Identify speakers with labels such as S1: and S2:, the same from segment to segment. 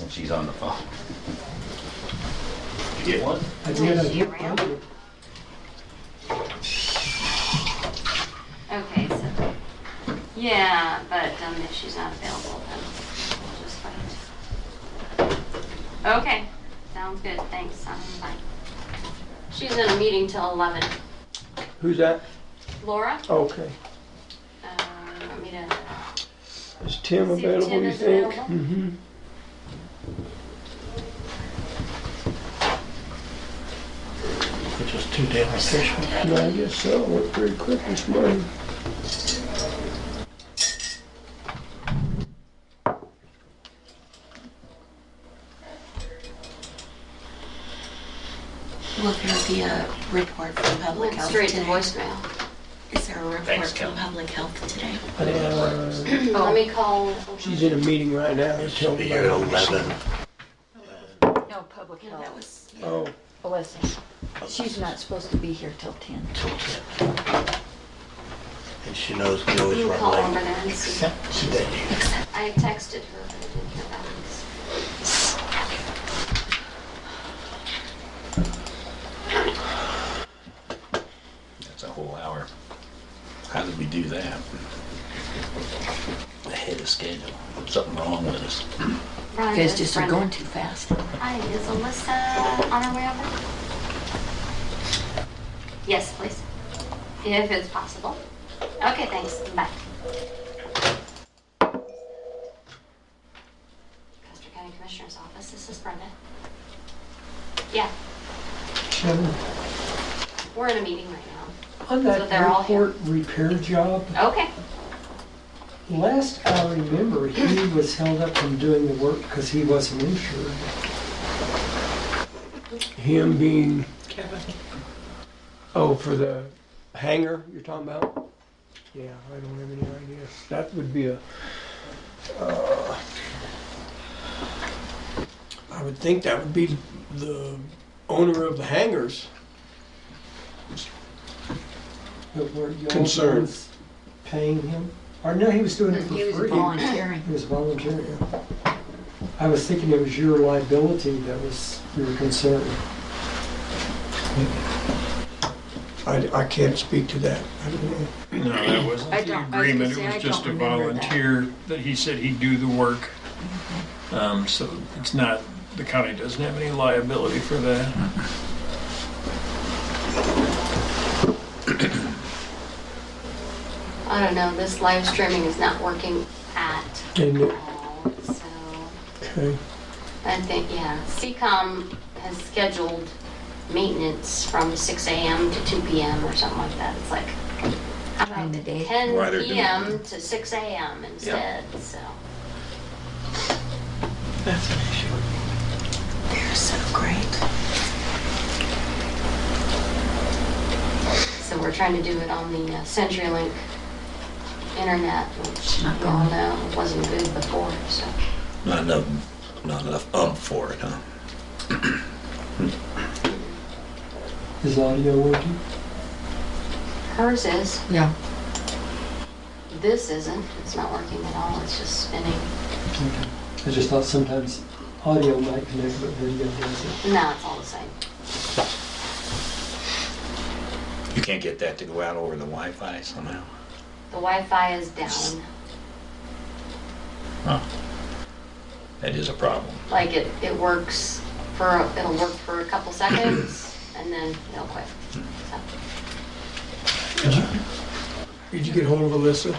S1: and she's on the phone.
S2: You get one?
S3: I did, I
S4: Is she
S3: did.
S4: around? Okay, so, yeah, but um, if she's not available, then we'll just wait. Okay, sounds good, thanks, I'm fine. She's in a meeting till 11.
S5: Who's that?
S4: Laura,
S5: Okay.
S4: uh, you want me to,
S5: Is Tim
S4: See if
S5: available,
S4: Tim
S5: you
S4: is
S5: think?
S4: available.
S5: Mm-hmm.
S6: which was too damn efficient.
S5: I guess so. Went pretty quick this morning.
S7: Will there be a report from public
S4: went
S7: health
S4: straight to
S7: today?
S4: voicemail.
S7: Is there a report
S2: Thanks,
S7: from
S2: Kelly.
S7: public health today?
S8: Oh.
S5: Uh,
S4: Let me call.
S5: she's in a meeting right now. Tell me
S2: Year
S5: about it.
S2: eleven.
S8: No, public
S7: No, that
S8: health.
S7: was,
S5: Oh,
S8: Alyssa, she's not supposed to be here till 10.
S6: And she knows we
S4: You
S6: always
S4: can call
S6: run
S4: over
S6: late.
S4: there and see.
S6: She did.
S4: I texted her, but I didn't hear back.
S1: That's a whole hour. How did we do that? Ahead of schedule. Something wrong with us.
S8: You
S4: Rhonda,
S8: guys just are
S4: Brenda.
S8: going too fast.
S4: Hi, is Alyssa on her way over? Yes, please. If it's possible. Okay, thanks. Bye. Custer County Commissioner's Office, this is Brenda. Yeah,
S3: Kevin,
S4: we're in a meeting right
S3: On
S4: So
S3: that
S4: they're all here.
S3: airport repair job,
S4: now. Okay.
S3: last I remember, he was held up from doing the work because he wasn't insured.
S5: him being. Kevin. Oh, for the hangar you're talking about? Yeah, I don't have any idea. That would be a. uh, I would think that would be the owner of the hangars.
S3: But were you all the
S5: Concerned.
S3: ones paying him? Or no, he was doing it for
S8: He was
S3: free.
S8: volunteering.
S3: He was volunteering. I was thinking it was your liability that was, you were concerned.
S5: I, I can't speak to that. I don't know.
S9: No, that wasn't
S8: I don't- I was gonna
S9: the agreement,
S8: say,
S9: it
S8: I
S9: was
S8: don't
S9: just a
S8: remember that.
S9: volunteer that he said he'd do the work. Um, so it's not, the county doesn't have any liability for that.
S4: I don't know, this live streaming is not working at
S5: Didn't it?
S4: all, so.
S5: Okay.
S4: I think, yeah. CCOM has scheduled maintenance from 6 AM to 2 PM or something like that. It's like, how about
S8: During the day.
S4: 10
S2: Why they're doing
S4: PM to 6 AM instead, so.
S6: That's an issue.
S7: they're so great.
S4: So we're trying to do it on the uh, CenturyLink internet, which
S8: Not
S4: we all know wasn't good before, so.
S2: Not enough, not enough um for it, huh?
S3: Is audio working?
S4: Hers is,
S8: Yeah.
S4: this isn't, it's not working at all, it's just spinning.
S3: I just thought sometimes audio might connect, but video doesn't.
S4: No, it's all the same.
S2: You can't get that to go out over the Wi-Fi somehow?
S4: The Wi-Fi is down.
S2: That is a problem.
S4: like it, it works for, it'll work for a couple seconds and then it'll quit. So,
S5: Did you get hold of Alyssa?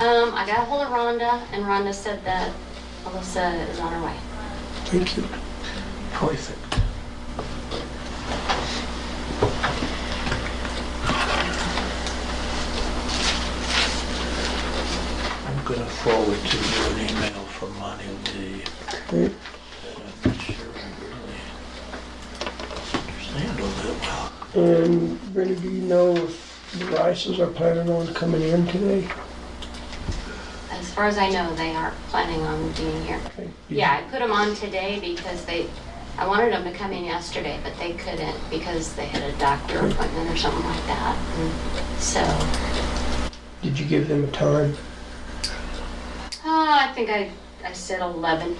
S4: Um, I got a hold of Rhonda and Rhonda said that Alyssa is on her way.
S5: Thank you.
S6: Perfect. I'm gonna forward to you an email from Monty D.
S5: Okay.
S6: that I'm not sure I really understand all that well.
S5: And Brenda, do you know if the Rices are planning on coming in today?
S4: As far as I know, they aren't planning on being here.
S5: Okay.
S4: Yeah, I put them on today because they, I wanted them to come in yesterday, but they couldn't because they had a doctor appointment or something like that. And So,
S5: Did you give them a time?
S4: oh, uh, I think I, I said 11.